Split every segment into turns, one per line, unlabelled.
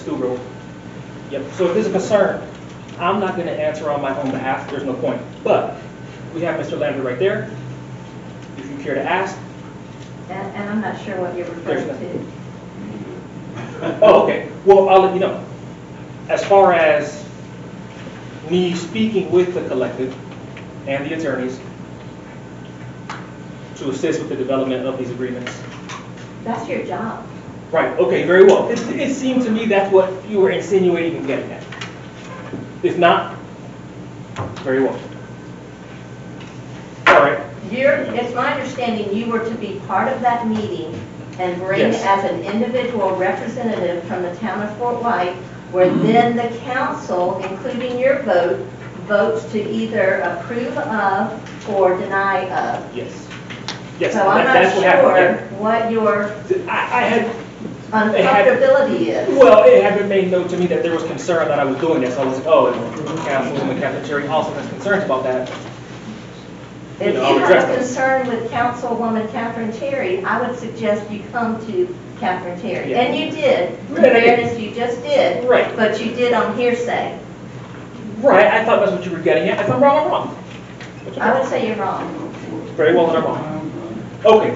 School road. Yep, so if there's a concern, I'm not gonna answer on my own behalf, there's no point. But we have Mr. Lambert right there. If you care to ask,
And, and I'm not sure what you're referring to.
Oh, okay. Well, I'll let you know. As far as me speaking with the collective and the attorneys to assist with the development of these agreements.
That's your job.
Right, okay, very well. It, it seemed to me that's what you were insinuating and getting at. If not, very well. All right,
You're, it's my understanding you were to be part of that meeting and bring
Yes.
as an individual representative from the town of Fort White, where
Mm-hmm.
then the council, including your vote, votes to either approve of or deny of.
yes. Yes,
So I'm
that- that's what happened.
not sure what your
yeah. I, I had had-
uncomfortability is.
Well, it had been made known to me that there was concern that I was doing this. I was like, oh, and Councilwoman Cafeteria also has concerns about that. you
If
know, I'll
you
address
have a
them.
concern with Councilwoman Catherine Terry, I would suggest you come to Catherine Terry.
Yeah.
And you did, in
Right, I did.
fairness, you just did.
Right.
But you did on hearsay.
Right, I thought that's what you were getting at. If I'm wrong, I'm wrong. If I'm
I would
wrong,
say you're wrong.
Very well, then I'm wrong. Okay.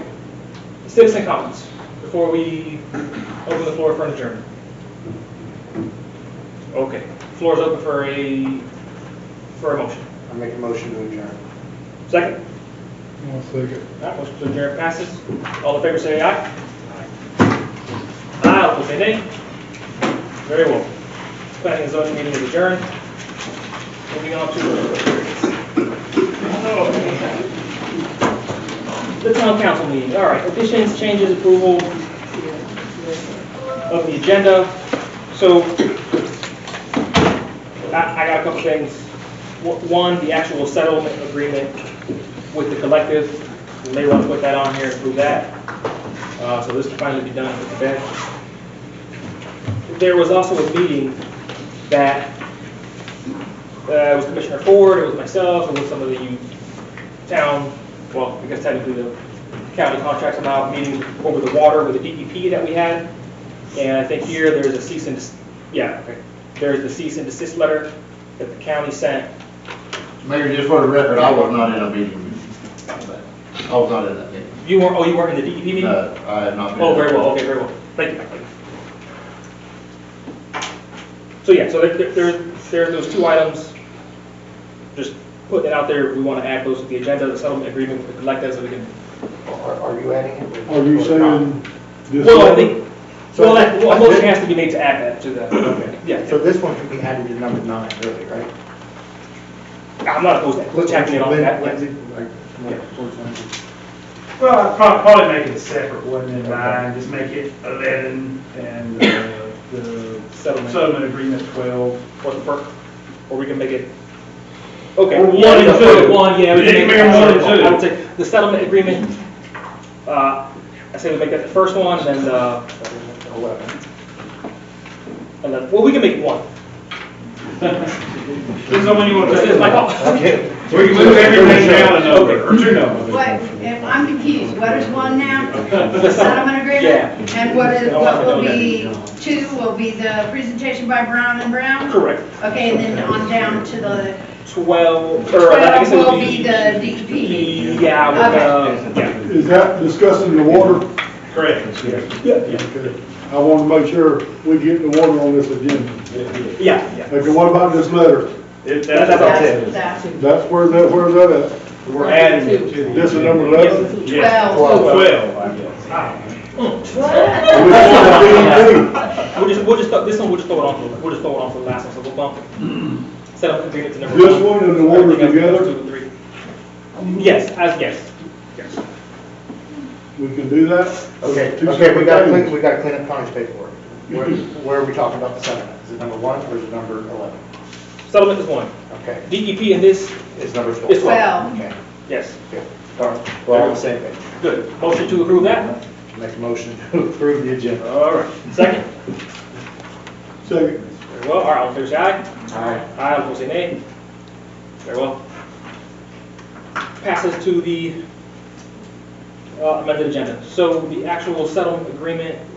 Citizen comments, before we open the floor for an adjournment. Okay, floor is open for a, for a motion.
I make a motion to adjourn.
Second?
One second.
All right, motion to adjourn passes. All in favor, say aye. Aye, opposed, say nay. Very well. Planning and zoning meeting is adjourned. Moving on to. The town council meeting, all right, additions, changes, approval of the agenda. So I, I got a couple things. One, the actual settlement agreement with the collective. We may want to put that on here and prove that. Uh, So this can finally be done with the bench. There was also a meeting that, uh, it was Commissioner Ford, it was myself, it was some of the you- town, well, I guess technically the county contracts amount meeting over the water with the DEP that we had. And I think here there's a cease and, des- yeah, okay. there's the cease and desist letter that the county sent
Mayor, just for the record, I was not in a meeting. I was not in that meeting.
You weren't, oh, you weren't in the DEP meeting?
No, I had not been.
Oh, very well, okay, very well. Thank you. Mike. So, yeah, so there, there- there, there are those two items. Just putting it out there, we want to add those to the agenda, the settlement agreement with the collective, so we can.
Are, are Oh, you adding it?
Are you saying this?
Well, I think,
So-
well, that- well, a motion has to be made to add that to the,
So
yeah.
this one should be added to number nine, really, right?
I'm not opposed to that, checking it off
When-
that,
when's
yes.
it, like, what- what's on
Well, I'd prob- probably make it a separate one in mind, just make it 11 and uh, the
Settlement.
settlement agreement 12.
What's the perk? Or we can make it, okay.
Or one
yeah,
and
let's
two.
do it One, yeah. we
You
can
can
make
make
it
it one
one.
and two.
I would say, the settlement agreement, uh, I say we make that the first one, and then, uh,
Eleven.
and then, well, we can make it one.
Depends on when you want to.
This is my fault.
Okay.
We can move everything down a number, or two numbers.
What, if I'm confused, what is one now? The settlement
Yeah.
agreement? And what is,
I want
what
to
will
know that.
be, two will be the presentation by Brown and Brown?
Correct.
Okay, and then on down to the,
Twelve, or I guess it
twelve will
would
uh, be
be.
the DEP meeting.
Yeah, with, uh, yeah.
Is that discussing the water?
Correct.
Yeah, yeah.
Okay. I want to make sure we get the water on this agenda.
Yeah, yeah.
Okay, what about this letter?
If
That's all.
that's,
That's that,
That's where that, where's that at?
we're adding it to the.
This is number eleven?
Yeah.
twelve.
12, I guess. Ah,
Which is the DEP.
We'll just, we'll just, throw- this one, we'll just throw it on, for- we'll just throw it on for the last one, so we'll bump it. Set up agreement to number one.
This one and the one
Everything else,
together?
Two and three. Yes, as, yes, yes.
We can do that?
Okay,
Two
okay, we gotta
separate
clean,
things.
we gotta clean up Connie's paperwork. Where, where are we talking about the settlement? Is it number one or is it number eleven?
Settlement is one.
Okay,
DEP in this,
it's number twelve.
It's twelve.
Well,
Okay,
yes,
good. All right, we're all on the same page.
good. Motion to approve that?
Make a motion to approve the agenda.
All right. Second?
Second.
Very well, all right, all in favor, say aye.
Aye.
Aye, all opposed, say nay. Very well. Passes to the uh, amended agenda. So the actual settlement agreement